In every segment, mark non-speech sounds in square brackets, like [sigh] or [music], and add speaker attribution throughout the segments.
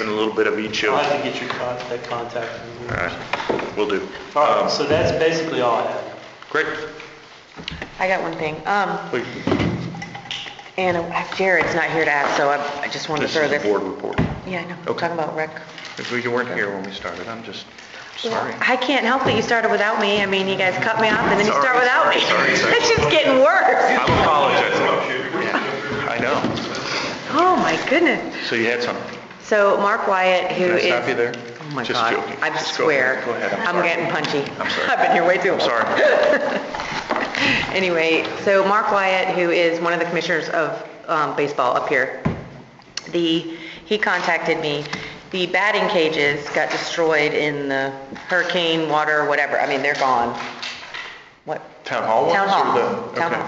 Speaker 1: and a little bit of each of,
Speaker 2: I'll
Speaker 1: all
Speaker 2: have to get your contact, that contact. information.
Speaker 1: right, will do.
Speaker 2: All right,
Speaker 1: Um,
Speaker 2: so that's basically all I have.
Speaker 1: Great,
Speaker 3: I got one thing. Um,
Speaker 1: Please,
Speaker 3: and uh, Jared's not here to ask, so I, I just wanted to
Speaker 1: this
Speaker 3: throw
Speaker 1: is the
Speaker 3: this.
Speaker 1: board report.
Speaker 3: Yeah, I know, I'm
Speaker 1: Okay.
Speaker 3: talking about rec.
Speaker 1: If we weren't here when we started, I'm just sorry.
Speaker 3: I can't help that you started without me. I mean, you guys cut me off and then you
Speaker 1: Sorry,
Speaker 3: start without
Speaker 1: sorry,
Speaker 3: me.
Speaker 1: sorry, sorry.
Speaker 3: [laughs] It's just getting worse.
Speaker 1: I'm apologizing. I know.
Speaker 3: Oh, my goodness.
Speaker 1: So you had something.
Speaker 3: So Mark Wyatt, who
Speaker 1: Can I
Speaker 3: is...
Speaker 1: stop you there?
Speaker 3: Oh, my
Speaker 1: Just
Speaker 3: God.
Speaker 1: joking.
Speaker 3: I
Speaker 1: Just go
Speaker 3: swear.
Speaker 1: ahead. Go ahead. I'm
Speaker 3: I'm
Speaker 1: sorry.
Speaker 3: getting punchy.
Speaker 1: I'm sorry.
Speaker 3: I've been here way too
Speaker 1: I'm
Speaker 3: long.
Speaker 1: sorry.
Speaker 3: [laughs] Anyway, so Mark Wyatt, who is one of the commissioners of um, baseball up here, the, he contacted me. The batting cages got destroyed in the hurricane, water, whatever. I mean, they're gone. What?
Speaker 1: Town hall ones?
Speaker 3: Town
Speaker 1: or
Speaker 3: hall,
Speaker 1: the-
Speaker 3: town
Speaker 1: okay.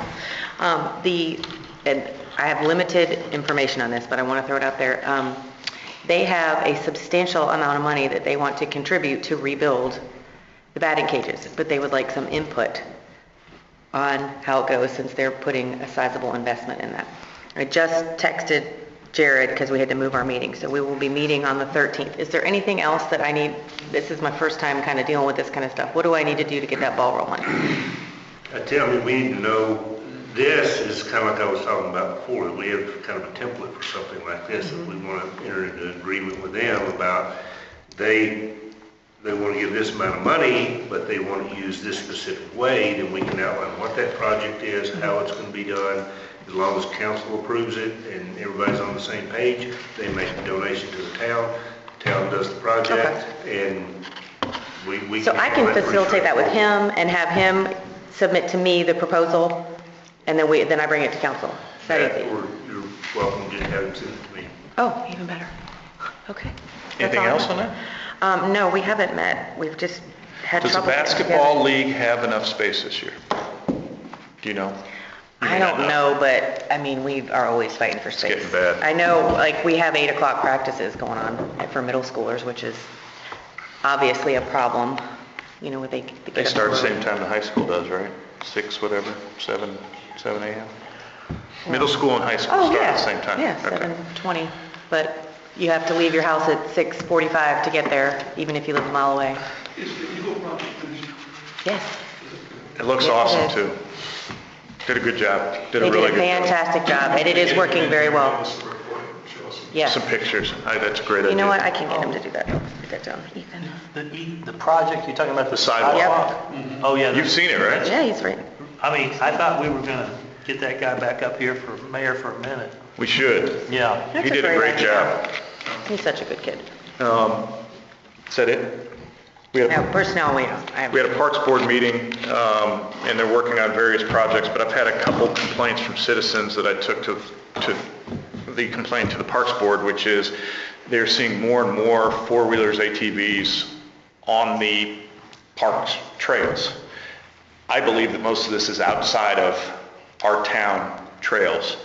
Speaker 3: hall. Um, The, and I have limited information on this, but I want to throw it out there. Um, They have a substantial amount of money that they want to contribute to rebuild the batting cages, but they would like some input on how it goes since they're putting a sizable investment in that. I just texted Jared because we had to move our meeting, so we will be meeting on the 13th. Is there anything else that I need, this is my first time kind of dealing with this kind of stuff. What do I need to do to get that ball rolling?
Speaker 4: I tell me, we need to know, this is kind of like I was talking about before, that we have kind of a template for something like this, that we want to enter into an agreement with them about, they, they want to give this amount of money, but they want to use this specific way, then we can outline what that project is, how it's going to be done, as long as council approves it and everybody's on the same page, they make the donation to the town, town does the project, and we, we.
Speaker 3: So I can
Speaker 4: handle that pretty
Speaker 3: facilitate that with
Speaker 4: straightforward.
Speaker 3: him and have him submit to me the proposal, and then we, then I bring it to council. Is that
Speaker 4: That,
Speaker 3: easy?
Speaker 4: or you're welcome to have it sent to me.
Speaker 3: Oh, even better. Okay. That's
Speaker 1: Anything
Speaker 3: all I
Speaker 1: else
Speaker 3: have.
Speaker 1: on that?
Speaker 3: Um, no, we haven't met. We've just had
Speaker 1: Does the
Speaker 3: trouble. getting
Speaker 1: basketball
Speaker 3: together.
Speaker 1: league have enough space this year? Do you know? You
Speaker 3: I
Speaker 1: may not
Speaker 3: don't know, but, I mean, we are always fighting for space.
Speaker 1: getting bad.
Speaker 3: I know, like, we have eight o'clock practices going on for middle schoolers, which is obviously a problem, you know, with they.
Speaker 1: They start the same time the high school does, right? Six, whatever, seven, seven AM? Middle school and high school
Speaker 3: Oh,
Speaker 1: start
Speaker 3: yeah.
Speaker 1: at the same time?
Speaker 3: Yeah,
Speaker 1: Okay.
Speaker 3: 7:20, but you have to leave your house at 6:45 to get there, even if you live a mile away. Yes.
Speaker 1: It looks
Speaker 3: Yes, it
Speaker 1: awesome,
Speaker 3: is.
Speaker 1: too. Did a good job. Did
Speaker 3: They
Speaker 1: a
Speaker 3: did
Speaker 1: really
Speaker 3: a
Speaker 1: good job.
Speaker 3: fantastic job, and it is working very well. Yes.
Speaker 1: Some pictures. Aye, That's a great idea.
Speaker 3: You know what, I can get him to do that, get that done, Ethan.
Speaker 2: The, e- the project, you're talking about the
Speaker 1: sidewalk.
Speaker 2: sidewalk? Oh, yeah.
Speaker 1: You've seen it, right?
Speaker 3: Yeah, he's right.
Speaker 2: I mean, I thought we were gonna get that guy back up here for mayor for a minute.
Speaker 1: We should.
Speaker 2: Yeah.
Speaker 3: That's
Speaker 1: He did a
Speaker 3: great
Speaker 1: great
Speaker 3: idea.
Speaker 1: job.
Speaker 3: He's such a good kid.
Speaker 1: Um, Is that it? We had,
Speaker 3: No,
Speaker 1: a-
Speaker 3: personnel, we don't. I have-
Speaker 1: we had a Parks Board meeting, um, and they're working on various projects, but I've had a couple complaints from citizens that I took to, to the complaint to the Parks Board, which is they're seeing more and more four-wheelers, ATVs on the parks trails. I believe that most of this is outside of our town trails.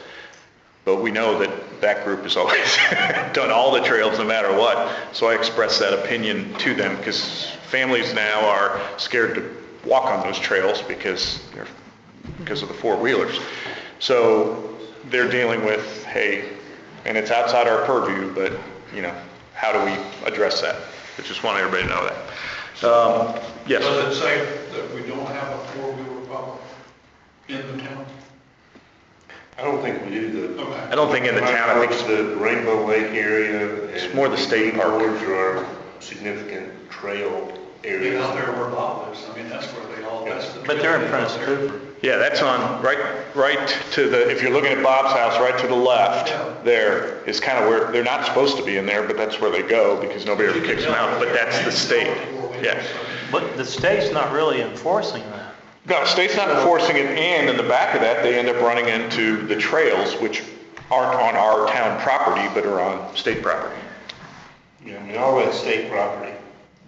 Speaker 1: But we know that that group has always [laughs] done all the trails, no matter what. So I expressed that opinion to them because families now are scared to walk on those trails because they're, because of the four-wheelers. So they're dealing with, hey, and it's outside our purview, but, you know, how do we address that? I just want everybody to know that. Um, Yes,
Speaker 5: Does it say that we don't have a four-wheeler problem in the town?
Speaker 4: I don't think we do the.
Speaker 5: Okay.
Speaker 1: I don't think in the town, I think
Speaker 4: Parks, The Rainbow Lake area. It's
Speaker 1: more the state park.
Speaker 4: Are our significant trail
Speaker 5: Get out
Speaker 4: areas.
Speaker 5: there where Bob lives, I mean, that's where they all, that's the.
Speaker 2: But they're in Prince Cooper.
Speaker 1: Yeah, that's on, right, right to the, if you're looking at Bob's house, right to the left, there is kind of where, they're not supposed to be in there, but that's where they go because nobody ever kicks them out, but that's the state. Yeah.
Speaker 2: But the state's not really enforcing that.
Speaker 1: No, state's not enforcing it, and in the back of that, they end up running into the trails, which aren't on our town property, but are on state property.
Speaker 4: Yeah, I mean, all that state property.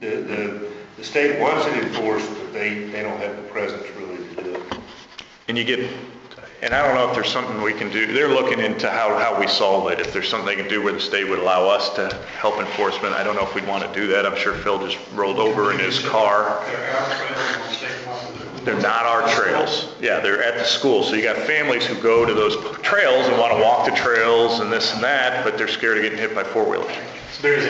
Speaker 4: The, the, the state wants it enforced, but they, they don't have the presence really to do it.
Speaker 1: And you get, and I don't know if there's something we can do, they're looking into how, how we solve it. If there's something they can do where the state would allow us to help enforcement, I don't know if we'd want to do that. I'm sure Phil just rolled over in his car.
Speaker 5: They're out there on state property,
Speaker 1: They're not our trails. Yeah, they're at the school. So you got families who go to those trails and want to walk the trails and this and that, but they're scared of getting hit by four-wheelers.
Speaker 2: There's